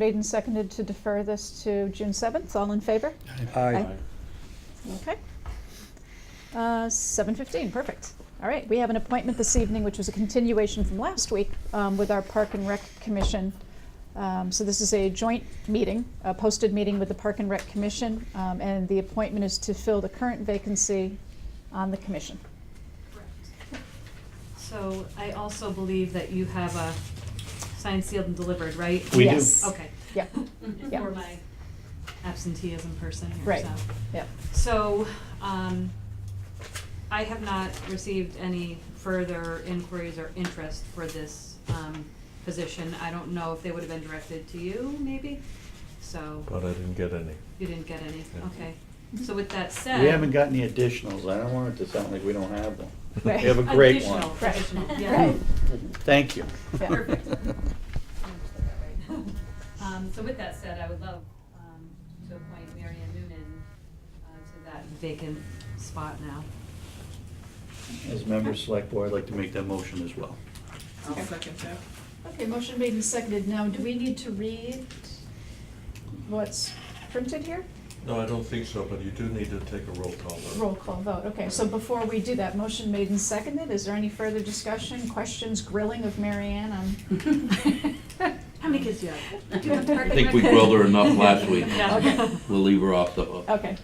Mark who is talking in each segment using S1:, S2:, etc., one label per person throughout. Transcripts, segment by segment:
S1: Made and seconded to defer this to June 7th. All in favor?
S2: Aye.
S3: Aye.
S1: Okay. Uh, 7:15, perfect. All right, we have an appointment this evening, which was a continuation from last week um, with our Park and Rec Commission. Um, So this is a joint meeting, a posted meeting with the Park and Rec Commission, um, and the appointment is to fill the current vacancy on the commission.
S4: Correct. So I also believe that you have a signed, sealed, and delivered, right?
S3: We do.
S1: Yes.
S4: Okay.
S1: Yep, yep.
S4: For my absenteeism person here,
S1: Right,
S4: so.
S1: yep.
S4: So, um, I have not received any further inquiries or interest for this, um, position. I don't know if they would have been directed to you, maybe, so.
S5: But I didn't get any.
S4: You didn't get any,
S5: Yeah.
S4: okay. So with that said.
S3: We haven't got any additionals, I don't want it to sound like we don't have them. We
S1: Right.
S3: have a great one.
S4: Additional,
S1: Right.
S4: additional, yeah.
S1: Right.
S3: Thank you.
S1: Yeah.
S4: Perfect. Um, so with that said, I would love, um, to appoint Mary Ann Noonan, uh, to that vacant spot now.
S3: As members of select board, I'd like to make that motion as well.
S6: I'll second that.
S1: Okay, motion made and seconded. Now, do we need to read what's printed here?
S5: No, I don't think so, but you do need to take a roll call vote.
S1: Roll call vote, okay, so before we do that, motion made and seconded, is there any further discussion, questions, grilling of Mary Ann on?
S4: How many kids do you have? Do you have
S1: I
S4: target
S1: Perfect.
S7: think we grilled her enough last week.
S4: Yeah.
S1: Okay.
S7: We'll leave her off the hook.
S1: Okay,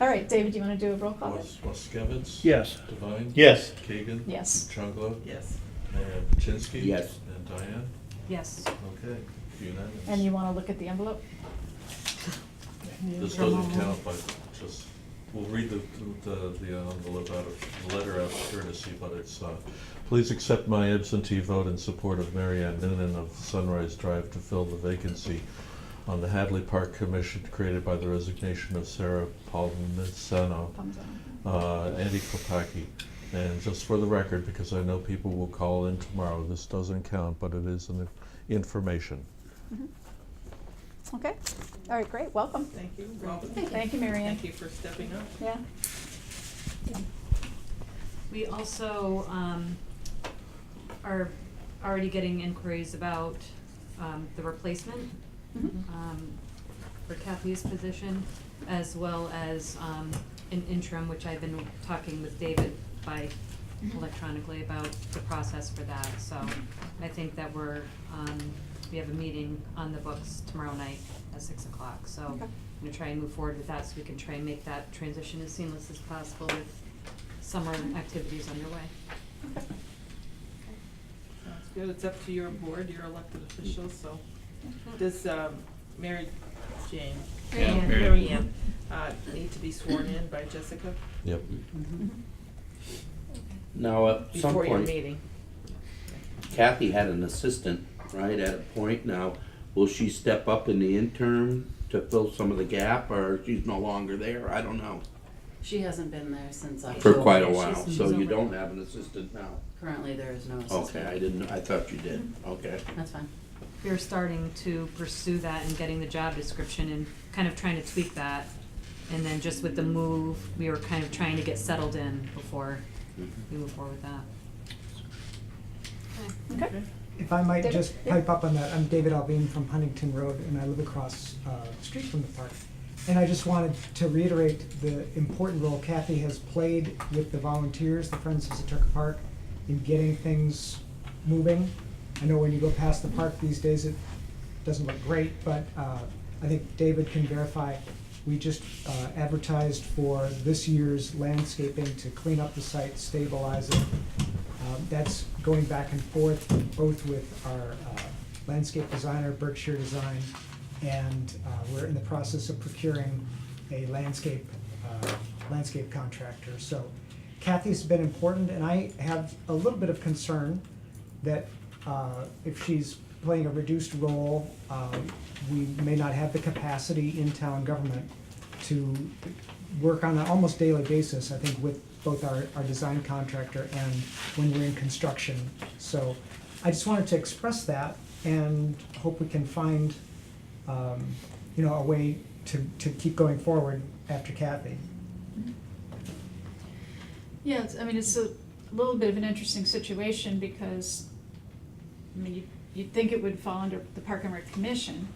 S1: all right, David, do you wanna do a roll call vote?
S5: Was Waskevitz?
S3: Yes.
S5: Devine?
S3: Yes.
S5: Keegan?
S1: Yes.
S5: Chunglo?
S6: Yes.
S5: And Chinsky?
S7: Yes.
S5: And Diane?
S4: Yes.
S5: Okay, unanimous.
S1: And you wanna look at the envelope?
S5: This doesn't count, but just, we'll read the, the, the envelope out of, the letter out of courtesy, but it's, uh, please accept my absentee vote in support of Mary Ann Noonan of Sunrise Drive to fill the vacancy on the Hadley Park Commission created by the resignation of Sarah Palmisano,
S1: Thumbs down.
S5: uh, Andy Kopaki. And just for the record, because I know people will call in tomorrow, this doesn't count, but it is an information.
S4: Mm-hmm.
S1: Okay, all right, great, welcome.
S6: Thank you, welcome.
S1: Thank you, Mary Ann.
S6: Thank you for stepping up.
S1: Yeah.
S4: We also um, are already getting inquiries about um, the replacement
S1: Mhm.
S4: um, for Kathy's position, as well as um, an interim, which I've been talking with David by electronically about the process for that. So I think that we're, um, we have a meeting on the books tomorrow night at six o'clock. So I'm
S1: Okay.
S4: gonna try and move forward with that so we can try and make that transition as seamless as possible with summer activities underway.
S1: Okay.
S6: Sounds good. It's up to your board, your elected officials, so
S1: Mm-hmm.
S6: does um, Mary Jane?
S4: Mary Yeah, Ann. Mary Ann.
S6: Mary Ann, uh, need to be sworn in by Jessica
S5: Yep.
S4: Mm-hmm.
S1: Mhm.
S7: Now, at some
S6: before your
S7: point,
S6: meeting?
S7: Kathy had an assistant, right, at a point now. Will she step up in the interim to fill some of the gap, or she's no longer there? I don't know.
S8: She hasn't been there since I.
S7: For quite a
S4: she's-
S7: while,
S4: she's
S7: so you
S4: over.
S7: don't have an assistant now.
S8: Currently, there is no assistant.
S7: Okay, I didn't, I thought you did, okay.
S8: That's fine.
S4: We're starting to pursue that and getting the job description and kind of trying to tweak that. And then just with the move, we were kind of trying to get settled in before we move forward with that.
S1: Okay,
S9: If I might
S1: David?
S9: just pipe up on that, I'm David Alvin from Huntington Road, and I live across uh, the street from the park. And I just wanted to reiterate the important role Kathy has played with the volunteers, the Friends of Setucket Park, in getting things moving. I know when you go past the park these days, it doesn't look great, but uh, I think David can verify, we just uh, advertised for this year's landscaping to clean up the site, stabilize it, um, That's going back and forth, both with our uh, landscape designer, Berkshire Design, and uh, we're in the process of procuring a landscape, uh, landscape contractor. So Kathy's been important, and I have a little bit of concern that uh, if she's playing a reduced role, um, we may not have the capacity in town government to work on an almost daily basis, I think, with both our, our design contractor and when we're in construction. So I just wanted to express that and hope we can find, um, you know, a way to, to keep going forward after Kathy.
S1: yeah, it's, I mean, it's a little bit of an interesting situation because, I mean, you- you'd think it would fall under the Park and Rec Commission,